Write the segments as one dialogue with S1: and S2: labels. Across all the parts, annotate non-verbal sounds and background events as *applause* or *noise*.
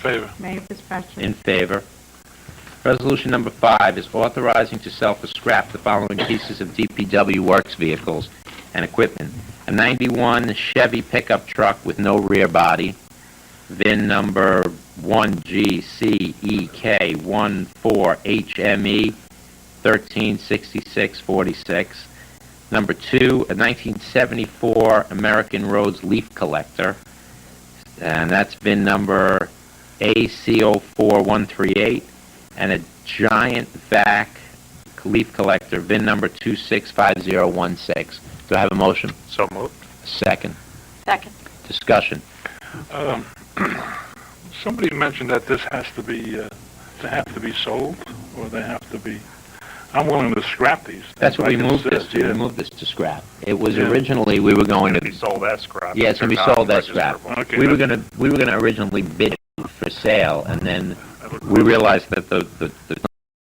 S1: favor,
S2: Mayor Fitzpatrick.
S3: In favor. Resolution number five is authorizing to sell for scrap the following pieces of DPW Works vehicles and equipment. A 91 Chevy pickup truck with no rear body, VIN number E 1GCEK14HME 136646. Number two, a 1974 American Roads leaf collector, and that's VIN number AC04138, and a giant vac leaf collector, VIN number 265016. Do I have a motion?
S1: so moved.
S3: Second.
S4: Second.
S3: Discussion.
S1: Um, *clears throat* Somebody mentioned that this has to be, uh, they have to be sold, or they have to be, I'm willing to scrap these. things.
S3: That's what
S1: I
S3: we
S1: can
S3: moved
S1: sit,
S3: this to.
S1: yeah.
S3: We moved this to scrap. It was
S1: Yeah.
S3: originally, we were going
S5: be
S3: to,
S5: sold as scrap.
S3: yeah, it's going to be sold as scrap.
S1: Okay,
S3: We were
S1: that's-
S3: going to, we were going to originally bid it for sale, and then we realized that the, the, there's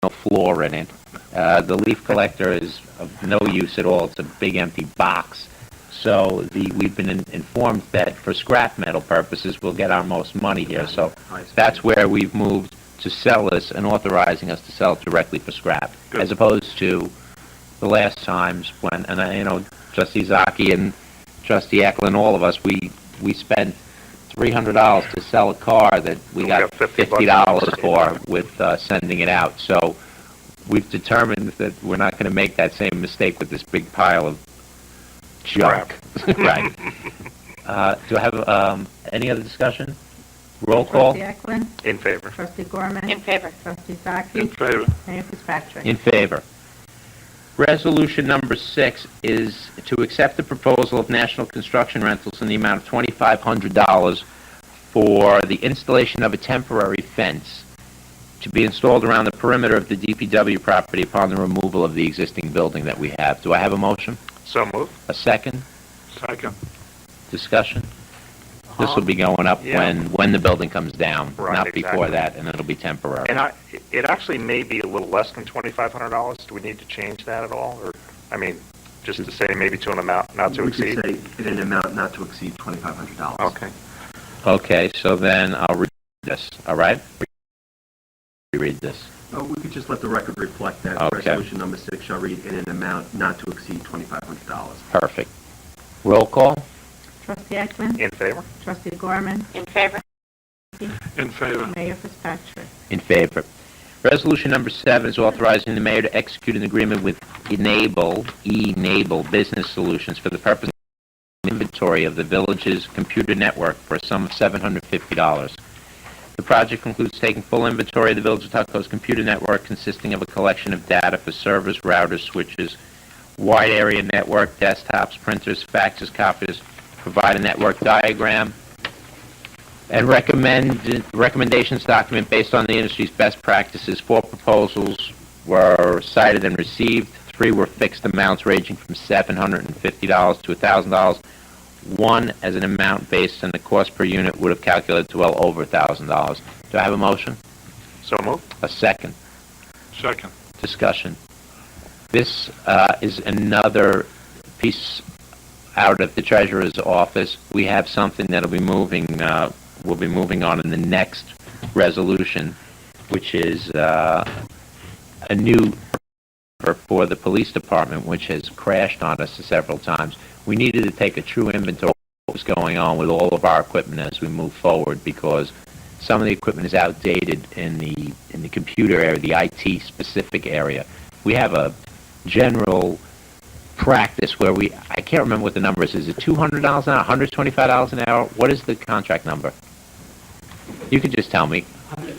S3: no floor in it. Uh, the leaf collector is of no use at all. It's a big empty box. So the, we've been in- informed that for scrap metal purposes, we'll get our most money here. So that's where we've moved to sell this and authorizing us to sell it directly for scrap,
S1: Good.
S3: as opposed to the last times when, and I, you know, Trustee Zaki and Trustee Eklund, all of us, we, we spent three hundred dollars to sell a car that we
S5: We
S3: got
S5: got
S3: fifty
S5: $50
S3: dollars for with, uh, sending it out. So we've determined that we're not gonna make that same mistake with this big pile of junk. *laughs* Right. Uh, do I have, um, any other discussion? Roll call?
S2: Trustee Ecklin.
S5: In favor.
S2: Trustee Gorman.
S4: In favor.
S2: Trustee Zaki.
S1: In favor,
S2: Mayor Fitzpatrick.
S3: In favor. Resolution number six is to accept the proposal of National Construction Rentals in the amount of $2,500 for the installation of a temporary fence to be installed around the perimeter of the DPW property upon the removal of the existing building that we have. Do I have a motion?
S5: So moved.
S3: A second?
S1: second,
S3: Discussion? This will be going up
S5: Yeah.
S3: when, when the building comes down,
S5: Uh-huh. Right,
S3: not before
S5: exactly.
S3: that, and it'll be temporary.
S5: And I, it actually may be a little less than twenty-five hundred dollars. Do we need to change that at all? Or, I mean, just to say maybe to an amount not to
S6: We could
S5: exceed?
S6: say in an amount not to exceed $2,500.
S5: Okay.
S3: Okay, so then I'll read this, all right? Read this.
S6: Uh, We could just let the record reflect that
S3: Okay.
S6: resolution number six shall read in an amount not to exceed $2,500.
S3: Perfect. Roll call?
S2: Trustee Ecklin.
S5: In favor?
S2: Trustee Gorman.
S4: In favor.
S1: in favor,
S2: Mayor Fitzpatrick.
S3: In favor. Resolution number seven is authorizing the mayor to execute an agreement with Enable, Enable Business Solutions for the purpose of inventory of the village's computer network for a sum of $750. The project includes taking full inventory of the Village of Tuckahoe's computer network consisting of a collection of data for servers, routers, switches, wide area network, desktops, printers, faxes, copiers, provide a network diagram, and recommend, recommendations document based on the industry's best practices. Four proposals were cited and received. Three were fixed amounts ranging from $750 to $1,000. One as an amount based on the cost per unit would have calculated to well over $1,000. Do I have a motion?
S5: So moved.
S3: A second?
S1: second,
S3: discussion. This uh, is another piece out of the treasurer's office. We have something that'll be moving, uh, we'll be moving on in the next resolution, which is uh, a new for- for the police department, which has crashed on us several times. We needed to take a true inventory of what was going on with all of our equipment as we move forward because some of the equipment is outdated in the in the computer area, the IT specific area. We have a general practice where we I can't remember what the number is. Is it two hundred dollars an hour, one hundred twenty five dollars an hour? What is the contract number? You could just tell me. Hundred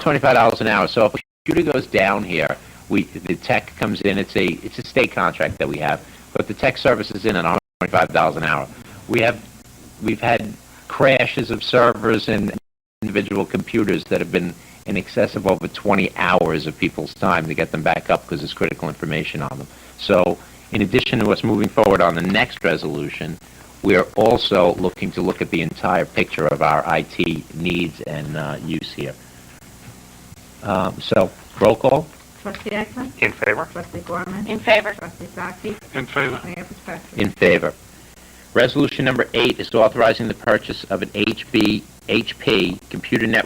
S3: twenty five dollars an hour. So if a computer goes down here, we the tech comes in. It's a it's a state contract that we have, but the tech service is in at one hundred twenty five dollars an hour. We have we've had crashes of servers and individual computers that have been in excess of over 20 hours of people's time to get them back up because there's critical information on them. So in addition to us moving forward on the next resolution, we are also looking to look at the entire picture of our IT needs and uh, use here. Um, So roll call?
S2: Trustee Ecklin.
S5: In favor?
S2: Trustee Gorman.
S4: In favor.
S2: Trustee Zaki.
S1: in favor,
S2: Mayor Fitzpatrick.
S3: In favor. Resolution number eight is authorizing the purchase of an HB HP Computer Network